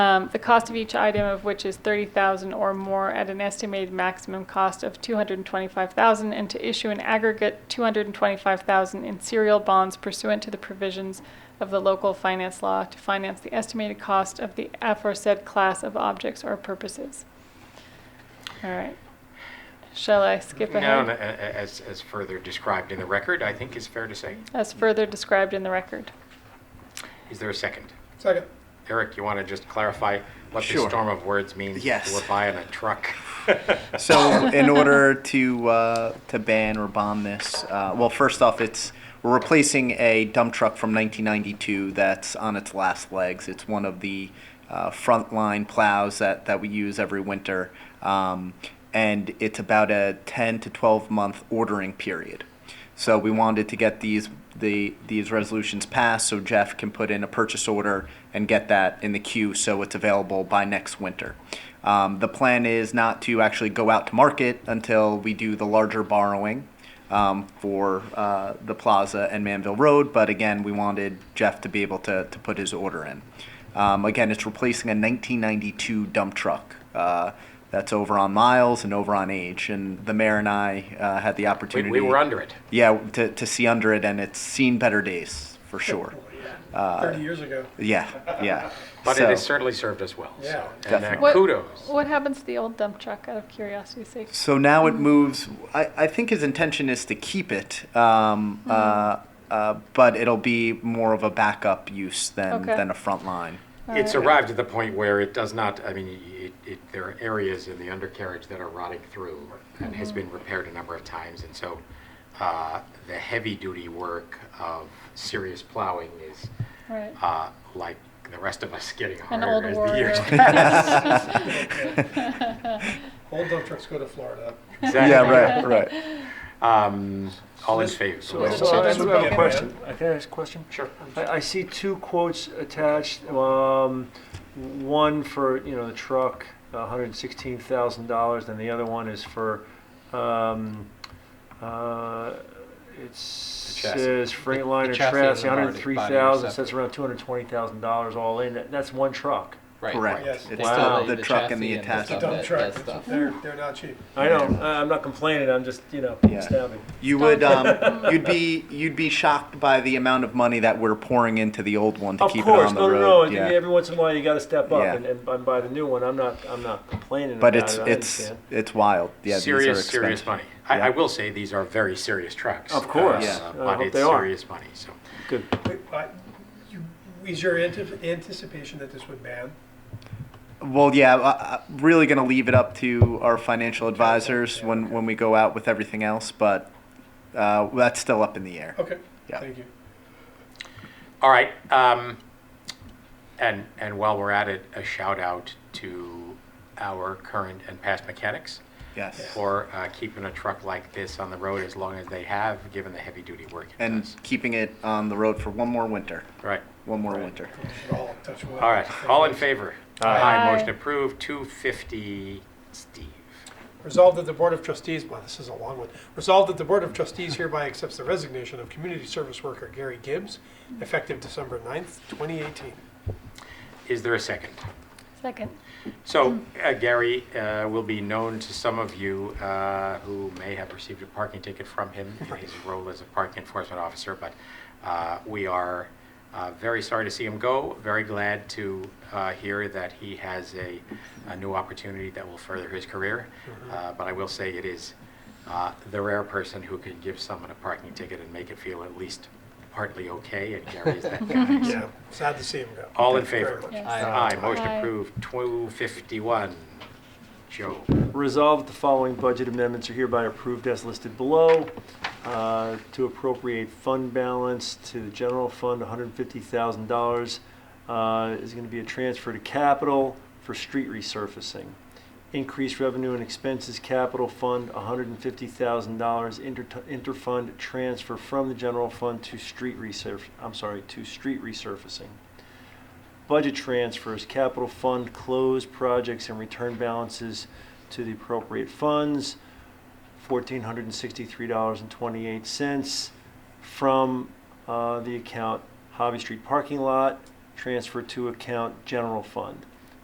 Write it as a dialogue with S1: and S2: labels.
S1: Um, The cost of each item of which is 30000 or more at an estimated maximum cost of 225000 and to issue an aggregate 225000 in serial bonds pursuant to the provisions of the local finance law to finance the estimated cost of the aforesaid class of objects or purposes. All right. Shall I skip
S2: No,
S1: ahead?
S2: no, a- a- as, as further described in the record, I think is fair to say.
S1: As further described in the record.
S2: Is there a second?
S3: Second.
S2: Eric, you want to just clarify what the
S4: Sure.
S2: storm of words means?
S4: Yes.
S2: We're buying a truck.
S4: So, in order to uh, to ban or bomb this, uh, well, first off, it's we're replacing a dump truck from 1992 that's on its last legs. It's one of the uh, frontline plows that that we use every winter, um, and it's about a 10 to 12 month ordering period. So we wanted to get these the these resolutions passed so Jeff can put in a purchase order and get that in the queue so it's available by next winter. Um, the plan is not to actually go out to market until we do the larger borrowing um, for uh, the plaza and Manville Road, but again, we wanted Jeff to be able to, to put his order in. Um, again, it's replacing a 1992 dump truck uh, that's over on miles and over on age, and the mayor and I uh, had the
S2: We,
S4: opportunity.
S2: we were under it.
S4: Yeah, to, to see under it, and it's seen better days for sure.
S3: Uh, Thirty years ago.
S4: Yeah, yeah.
S2: But
S4: So-
S2: it has certainly served us well. so-
S3: Yeah.
S2: And uh,
S4: Definitely.
S1: What-
S2: kudos.
S1: What happens to the old dump truck, out of curiosity's sake?
S4: So now it moves. I, I think his intention is to keep it,
S5: Hmm.
S4: um, uh, uh, but it'll be more of a backup use than,
S1: Okay.
S4: than a front line.
S2: It's arrived at the point where it does not, I mean, it, it, there are areas in the undercarriage that are rotting through and
S1: Mm-hmm.
S2: has been repaired a number of times. And so uh, the heavy duty work of serious plowing is
S1: Right.
S2: uh, like the rest of us getting
S1: An
S2: harder
S1: old
S2: as the
S1: warrior.
S2: years
S3: Old dump trucks go to Florida.
S2: Exactly.
S4: right, right.
S2: Um, all in favor?
S1: So
S5: Well,
S1: it's-
S5: so uh, I
S1: it's
S5: have a
S3: about-
S5: question. I Can I ask a question?
S2: Sure.
S5: I, I see two quotes attached, um, one for, you know, the truck, hundred and sixteen thousand dollars, and the other one is for, um, uh, it
S2: chassis.
S5: says
S6: The
S5: Freightliner
S6: chassis
S5: chassis,
S6: is already
S5: hundred and three
S6: body
S5: thousand,
S6: or
S5: so that's around two hundred and twenty thousand dollars all in, That- that's one truck.
S6: Right.
S4: Correct.
S3: Yes.
S6: They
S4: It's
S5: Wow.
S6: still
S4: the,
S6: need
S4: the truck and the
S6: chassis
S4: attachment.
S6: stuff,
S3: Dump
S6: that-
S3: truck.
S6: that stuff.
S3: They're, they're not cheap.
S5: I know, I- I'm not complaining, I'm just, you know,
S4: Yeah.
S5: stabbing.
S4: You would um, you'd be you'd be shocked by the amount of money that we're pouring into the old one to
S5: Of
S4: keep it
S5: course,
S4: on the
S5: no, no,
S4: road.
S5: no, and
S4: yeah.
S5: every once in a while you gotta step up
S4: Yeah.
S5: and, and and buy the new one, I'm not, I'm not complaining about
S4: but
S5: it,
S4: it's
S5: I
S4: it's
S5: understand.
S4: it's wild. Yeah, these are
S2: serious, serious
S4: expensive.
S2: money. I, I
S4: Yeah.
S2: will say these are very serious trucks. Uh,
S5: Of course.
S4: Yeah.
S5: I
S2: But
S5: hope
S2: it's
S5: they are.
S2: serious money, so.
S5: Good.
S3: Wait, I- you- Is your ante- anticipation that this would ban?
S4: Well, yeah, I, I'm really going to leave it up to our financial advisors when, when we go out with everything else, but uh, that's still up in the air.
S3: Okay,
S4: Yeah.
S3: thank you.
S2: All right. Um, and, and while we're at it, a shout out to our current and past mechanics
S4: Yes.
S2: for uh, keeping a truck like this on the road as long as they have, given the heavy duty work it
S4: And
S2: does.
S4: keeping it on the road for one more winter.
S2: Right.
S4: One more winter.
S3: We should all touch wood.
S2: All right. All in favor?
S1: Aye.
S2: Motion approved. 250, Steve.
S3: Resolved that the Board of Trustees, wow, this is a long one. Resolved that the Board of Trustees hereby accepts the resignation of community service worker Gary Gibbs, effective December 9th, 2018.
S2: Is there a second?
S1: Second.
S2: So, uh, Gary uh, will be known to some of you uh, who may have received a parking ticket from him in his role as a parking enforcement officer, but uh, we are uh, very sorry to see him go, very glad to uh, hear that he has a, a new opportunity that will further his career. Uh, But I will say it is uh, the rare person who can give someone a parking ticket and make it feel at least partly okay, and Gary is that guy.
S3: Yeah, sad to see him go.
S2: All in
S3: Thank you very
S2: favor?
S3: much.
S1: Yes.
S2: Aye, motion
S1: Aye.
S2: approved, 251. Joe.
S5: Resolved that the following budget amendments are hereby approved as listed below. Uh, To appropriate fund balance to the general fund, $150,000 uh, is going to be a transfer to capital for street resurfacing. Increased revenue and expenses capital fund, $150,000 inter- interfund transfer from the general fund to street resurf, I'm sorry, to street resurfacing. Budget transfers, capital fund closed projects and return balances to the appropriate funds, fourteen hundred and sixty-three dollars and twenty-eight cents from uh, the account Hobby Street Parking Lot, transfer to account General Fund.